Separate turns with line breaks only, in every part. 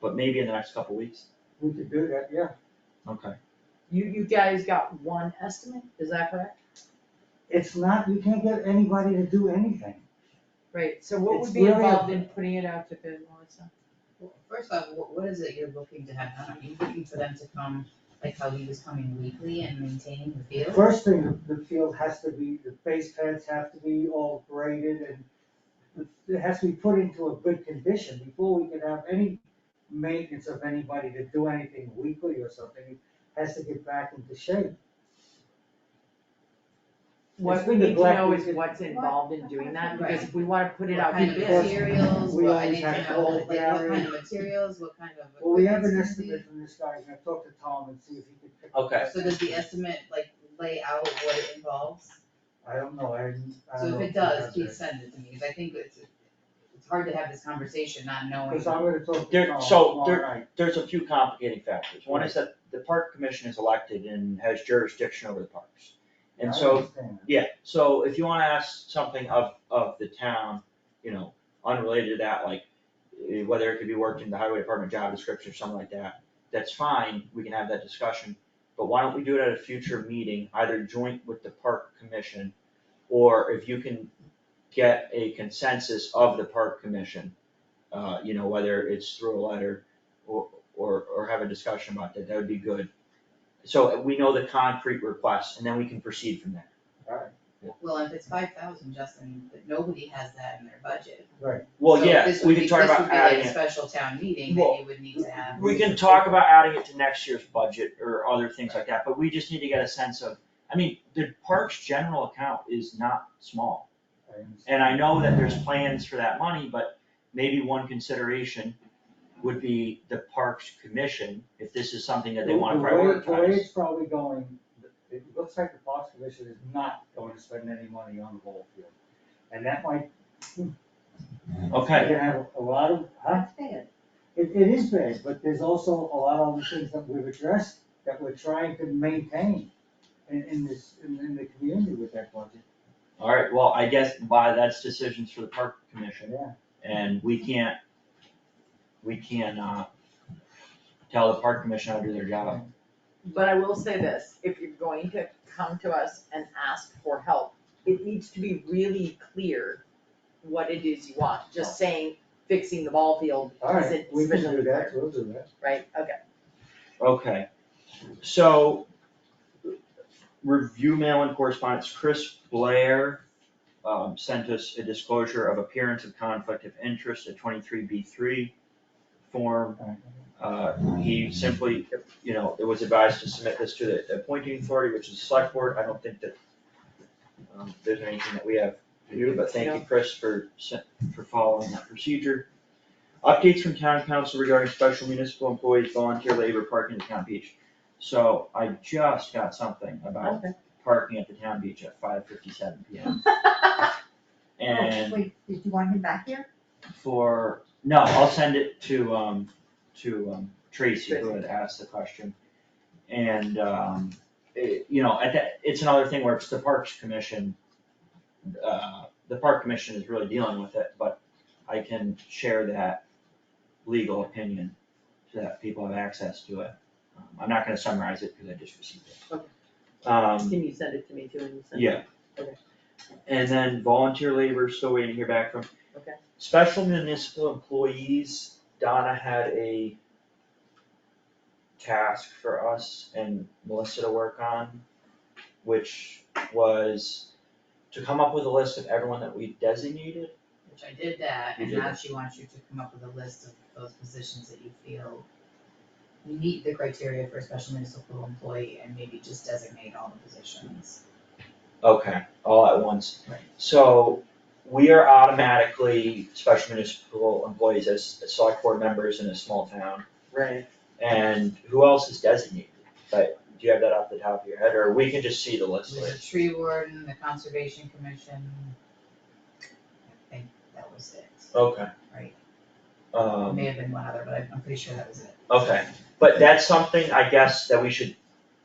but maybe in the next couple weeks,
We could do that, yeah.
okay.
You, you guys got one estimate, is that correct?
It's not, you can't get anybody to do anything.
Right, so what
It's
would be
really
involved
a-
in putting it out to bid, Melissa?
Well, First off, what, what is it you're looking to have done? Are you looking for them to come, like how he was coming weekly and maintaining the field?
First thing, the field has to be, the base pads have to be all graded and it has to be put into a good condition before we can have any maintenance of anybody to do anything weekly or something. It Has to get back into shape.
What we
been
need to know
neglected.
is what's involved in doing that, because
Right.
if we wanna put it
What
out to
kind of
bid,
material?
materials,
We
what, I
always
need
have
to
to
know,
hold
like, what kind of
Gary.
materials, what kind of.
Well, we have
equipment's
an
gonna
estimate from this guy, I'm gonna talk to Tom and see if he can pick.
Okay.
be? So does the estimate like lay out what it involves?
I don't know, I didn't, I
So
don't know.
if it
he
does,
has
please
it.
send it to me, cause I think it's, it's hard to have this conversation not knowing.
Cause I'm gonna talk to
There-
Tom
so
tomorrow
there-
night.
There's a few complicating factors, one is that the park commission is elected and has jurisdiction over the parks. And
I
so
understand.
Yeah, so if you wanna ask something of, of the town, you know, unrelated to that, like, eh, whether it could be worked in the highway department job description or something like that, that's fine, we can have that discussion, but why don't we do it at a future meeting, either joint with the park commission, or if you can get a consensus of the park commission, uh, you know, whether it's through a letter or, or, or have a discussion about that, that would be good. So we know the concrete requests, and then we can proceed from there.
Well, if it's five thousand, Justin, but nobody has that in their budget.
Right.
Well,
So
yeah,
this
we
would be-
can talk about adding
This would be like a
it,
special town meeting
Well,
that you would need to have.
we can talk about adding it to next year's budget or other things like that, but we just need to get a sense of, I mean, the parks general account is not small. And I know that there's plans for that money, but maybe one consideration would be the parks commission, if this is something that they wanna
The- the way- The way
prioritize.
it's probably going, it looks like the Parks Commission is not going to spend any money on the ball field. And that might,
Okay,
they have a lot of, huh?
That's bad.
It, it is bad, but there's also a lot of other things that we've addressed that we're trying to maintain in, in this, in, in the community with that budget.
alright, well, I guess by that's decisions for the park commission,
Yeah,
and we can't, we can't, uh, tell the park commission how to do their job.
but I will say this, if you're going to come to us and ask for help, it needs to be really clear what it is you want, just saying fixing the ball field
all right,
isn't
we can do
sufficiently
that,
clear,
we'll do that.
right, okay.
Okay, so review mail and correspondence, Chris Blair um sent us a disclosure of appearance of conflict of interest at twenty-three B three form.
All right.
Uh, he simply, you know, it was advised to submit this to the appointing authority, which is the select board, I don't think that um, there's anything that we have to do, but thank you, Chris, for se- for following that procedure. Updates from town council regarding special municipal employees, volunteer labor, parking at town beach. So I just got something about
Okay.
parking at the town beach at five fifty-seven P M.
Oh,
And
Wait, did you want him back here?
for, no, I'll send it to, um, to, um, Tracy, who had asked the question. And, um, it, you know, at that, it's another thing where it's the Parks Commission, uh, the Park Commission is really dealing with it, but I can share that legal opinion so that people have access to it. Um, I'm not gonna summarize it because I just received it. Um,
Can you send it to me too, and you send it?
yeah.
Okay.
And then volunteer labor, still waiting to hear back from.
Okay.
Special municipal employees, Donna had a task for us and Melissa to work on, which was to come up with a list of everyone that we designated.
Which I did that,
You
and
did
now
that.
she wants you to come up with a list of those positions that you feel meet the criteria for a special municipal employee and maybe just designate all the positions.
Okay, all at once.
Right.
So we are automatically special municipal employees as as select board members in a small town.
Right.
And who else is designated? But do you have that off the top of your head, or we can just see the list
There's a
later?
tree warden, the conservation commission. I think that was it,
Okay.
Right. There may
Um,
have been one other, but I'm- I'm pretty sure that was it.
okay, but that's something, I guess, that we should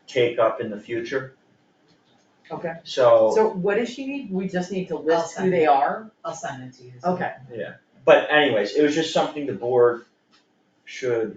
take up in the future,
Okay,
so,
so what does she need? We just need to
I'll
list who
send
they
it.
are?
I'll send it to you. so-
Okay,
but anyways, it was just something the board should